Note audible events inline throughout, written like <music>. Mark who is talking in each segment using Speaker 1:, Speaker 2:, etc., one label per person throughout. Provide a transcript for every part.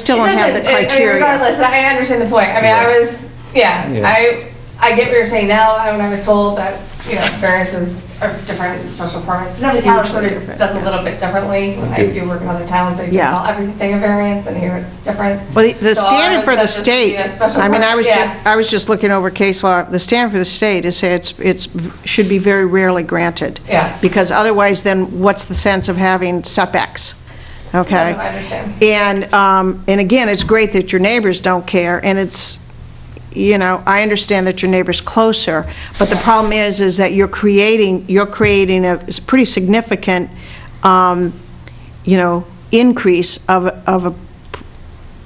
Speaker 1: still
Speaker 2: It
Speaker 1: don't have the
Speaker 2: doesn't- it-
Speaker 1: criteria.
Speaker 2: Regardless, I understand the point. I mean, I
Speaker 3: Yeah.
Speaker 2: was, yeah,
Speaker 3: Yeah.
Speaker 2: I, I get what you're saying now, I- when I was told that, you know, variances are different, special permits, because every town sort
Speaker 1: Hugely
Speaker 2: of
Speaker 1: different,
Speaker 2: does a
Speaker 1: yeah.
Speaker 2: little bit differently. I
Speaker 3: Okay.
Speaker 2: do work in other towns, they just
Speaker 1: Yeah.
Speaker 2: call everything a variance, and here it's different.
Speaker 1: Well, the- the
Speaker 2: So I
Speaker 1: standard
Speaker 2: was
Speaker 1: for the
Speaker 2: set to
Speaker 1: state,
Speaker 2: be a special
Speaker 1: I mean, I was,
Speaker 2: permit,
Speaker 1: ju-
Speaker 2: yeah.
Speaker 1: I was just looking over case law, the standard for the state is say it's, it's, should be very rarely granted.
Speaker 2: Yeah.
Speaker 1: Because otherwise, then what's the sense of having setbacks? Okay?
Speaker 2: No, I understand.
Speaker 1: And, um, and again, it's great that your neighbors don't care, and it's, you know, I understand that your neighbor's closer, but the problem is, is that you're creating, you're creating a s- pretty significant, um, you know, increase of, a- of a p-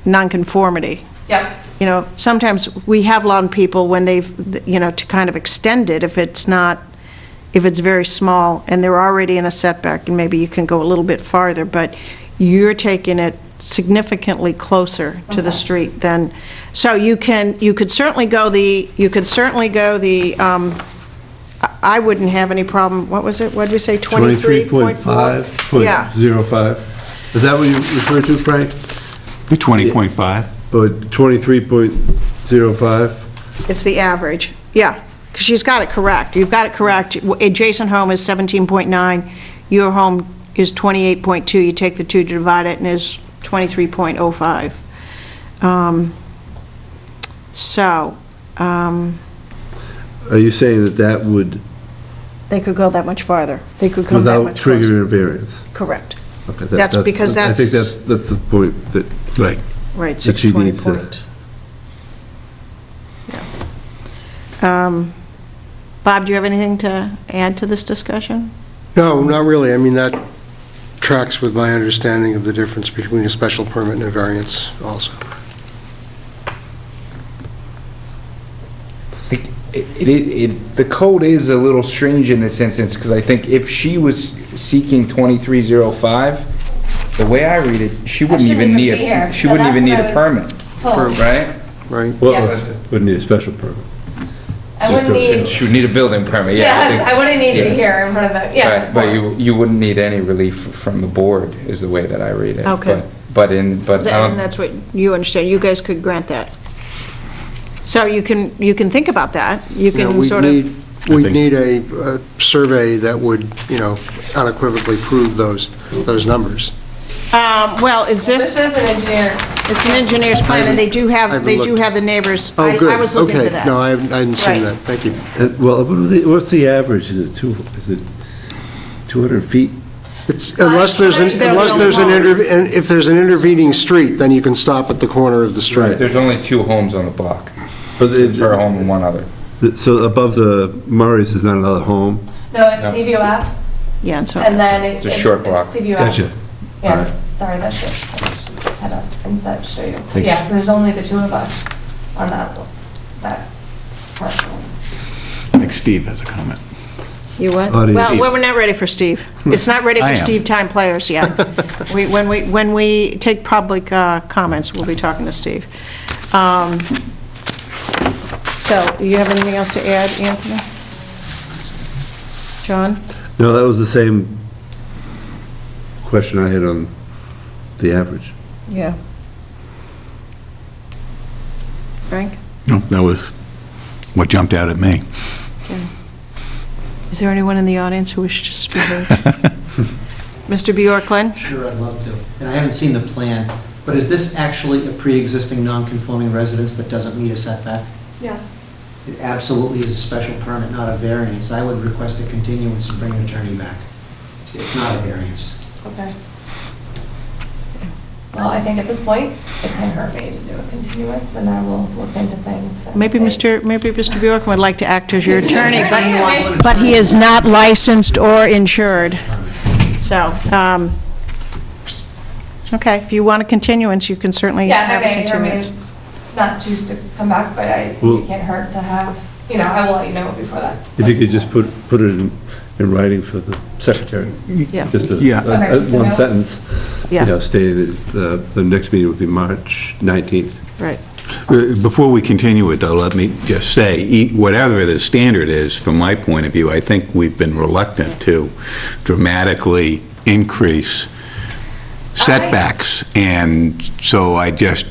Speaker 1: nonconformity.
Speaker 2: Yep,
Speaker 1: You know, sometimes we have lawn people when they've, you know, to kind of extend it if it's not, if it's very small and they're already in a setback, and maybe you can go a little bit farther, but you're taking it significantly closer to the street than, so you can, you could certainly go the, you could certainly go the, um, I- I wouldn't have any problem, what was it, what did we say, 23.4?
Speaker 3: 23.5.05.
Speaker 1: Yeah,
Speaker 3: Is that what you refer to, Frank?
Speaker 4: The 20.5.
Speaker 3: Or 23.05?
Speaker 1: It's the average, yeah, because she's got it correct, you've got it correct. Adjacent home is 17.9, your home is 28.2, you take the two, divide it, and it's 23.05. Um, So, um,
Speaker 3: Are you saying that that would,
Speaker 1: they could go that much farther, they could come that
Speaker 3: without
Speaker 1: much closer.
Speaker 3: triggering a variance?
Speaker 1: Correct,
Speaker 3: Okay, that-
Speaker 1: That's because
Speaker 3: I think
Speaker 1: that's-
Speaker 3: that's, that's the point that,
Speaker 4: Right.
Speaker 1: right,
Speaker 3: That she needs
Speaker 1: 620
Speaker 3: to-
Speaker 1: point. Yeah. Um, Bob, do you have anything to add to this discussion?
Speaker 5: No, not really. I mean, that tracks with my understanding of the difference between a special permit and a variance also.
Speaker 6: think it, it, it, the code is a little strange in this instance, because I think if she was seeking twenty-three zero five, the way I read it, she
Speaker 2: shouldn't
Speaker 6: wouldn't even
Speaker 2: even
Speaker 6: need
Speaker 2: be here.
Speaker 6: a, she
Speaker 2: Yeah,
Speaker 6: wouldn't even need
Speaker 2: that's
Speaker 6: a
Speaker 2: what I was
Speaker 6: permit,
Speaker 2: told.
Speaker 6: right?
Speaker 5: Right.
Speaker 3: well,
Speaker 2: Yes.
Speaker 3: would need a special permit.
Speaker 2: I wouldn't
Speaker 3: go
Speaker 2: need,
Speaker 6: She would need a building permit, yeah.
Speaker 2: yes, I wouldn't need to be
Speaker 6: Yes.
Speaker 2: here in front of them, yeah.
Speaker 6: Right, But you, you wouldn't need any relief from the board, is the way that I read it.
Speaker 1: Okay.
Speaker 6: But- But in, but,
Speaker 1: And
Speaker 6: um,
Speaker 1: that's what you understand, you guys could grant that. So you can, you can think about that, you
Speaker 5: You know,
Speaker 1: can
Speaker 5: we'd
Speaker 1: sort of,
Speaker 5: need- We'd
Speaker 4: think-
Speaker 5: need a, a survey that would, you know, unequivocally prove those, those numbers.
Speaker 1: um, well, is
Speaker 2: This
Speaker 1: this,
Speaker 2: is an engineer,
Speaker 1: it's an engineer's plan, and they do
Speaker 5: I
Speaker 1: have,
Speaker 5: haven't
Speaker 1: they do
Speaker 5: looked.
Speaker 1: have the neighbors. I-
Speaker 5: Oh, good.
Speaker 1: I was looking for that.
Speaker 5: Okay, no, I haven't- I hadn't
Speaker 1: Right.
Speaker 5: seen that. Thank you.
Speaker 3: And, well, what was the- what's the average? Is it two, is it 200 feet?
Speaker 5: It's- Unless there's, an-
Speaker 1: They're
Speaker 5: unless there's an,
Speaker 1: alone.
Speaker 5: interve- and if there's an intervening street, then you can stop at the corner of the street.
Speaker 6: there's only two homes on the block.
Speaker 3: But it-
Speaker 6: It's her home and one other.
Speaker 3: So above the Murray's is not another home?
Speaker 2: no, it's CVO app.
Speaker 1: Yeah, and so,
Speaker 2: And then it-
Speaker 6: It's a short
Speaker 2: it's
Speaker 6: block.
Speaker 2: CBUF.
Speaker 3: Gotcha.
Speaker 2: Yeah,
Speaker 6: Alright.
Speaker 2: sorry, that's it. Head up and set, show you.
Speaker 3: you.
Speaker 2: Yeah, so there's only the two of us on that, that parcel.
Speaker 4: I think Steve has a comment.
Speaker 1: you what?
Speaker 3: Audience.
Speaker 1: Well, well, we're not ready for
Speaker 4: <laughs>
Speaker 1: Steve. It's not ready
Speaker 4: I
Speaker 1: for
Speaker 4: am.
Speaker 1: Steve time players
Speaker 4: <laughs>
Speaker 1: yet. We, when we, when we take public uh, comments, we'll be talking to Steve. Um, So, you have anything else to add, Anthony? John?
Speaker 3: No, that was the same question I had on the average.
Speaker 1: Yeah. Frank?
Speaker 4: No, That was what jumped out at me.
Speaker 1: Is there anyone in the audience who wishes to speak?
Speaker 4: <laughs>
Speaker 1: Mr. Bjorklund?
Speaker 7: Sure, I'd love to. And I haven't seen the plan, but is this actually a pre-existing non-conforming residence that doesn't meet a setback?
Speaker 2: Yes.
Speaker 7: It absolutely is a special permit, not a variance. I would request a continuance and bring an attorney back. It's- It's not a variance.
Speaker 2: Okay. Well, I think at this point, it can hurt me to do a continuance, and I will look into things. and
Speaker 1: Maybe
Speaker 2: see.
Speaker 1: Mr., maybe Mr. Bjork would like to act as your attorney,
Speaker 2: Yeah,
Speaker 1: but, but he is not licensed or insured. So, um, okay, if you want a continuance, you can certainly
Speaker 2: Yeah,
Speaker 1: have a
Speaker 2: okay, I
Speaker 1: continuance.
Speaker 2: mean, not choose to come back, but I,
Speaker 3: Well-
Speaker 2: it can't hurt to have, you know, I will let you know before that.
Speaker 3: If you could just put, put it in, in writing for the secretary.
Speaker 1: Yeah.
Speaker 3: Just a,
Speaker 4: Yeah.
Speaker 3: a- a- one sentence, you know,
Speaker 1: Yeah,
Speaker 3: stating that uh, the next meeting would be March 19th.
Speaker 1: right.
Speaker 4: Uh, Before we continue it, though, let me just say, e- whatever the standard is, from my point of view, I think we've been reluctant to dramatically increase setbacks, and so I just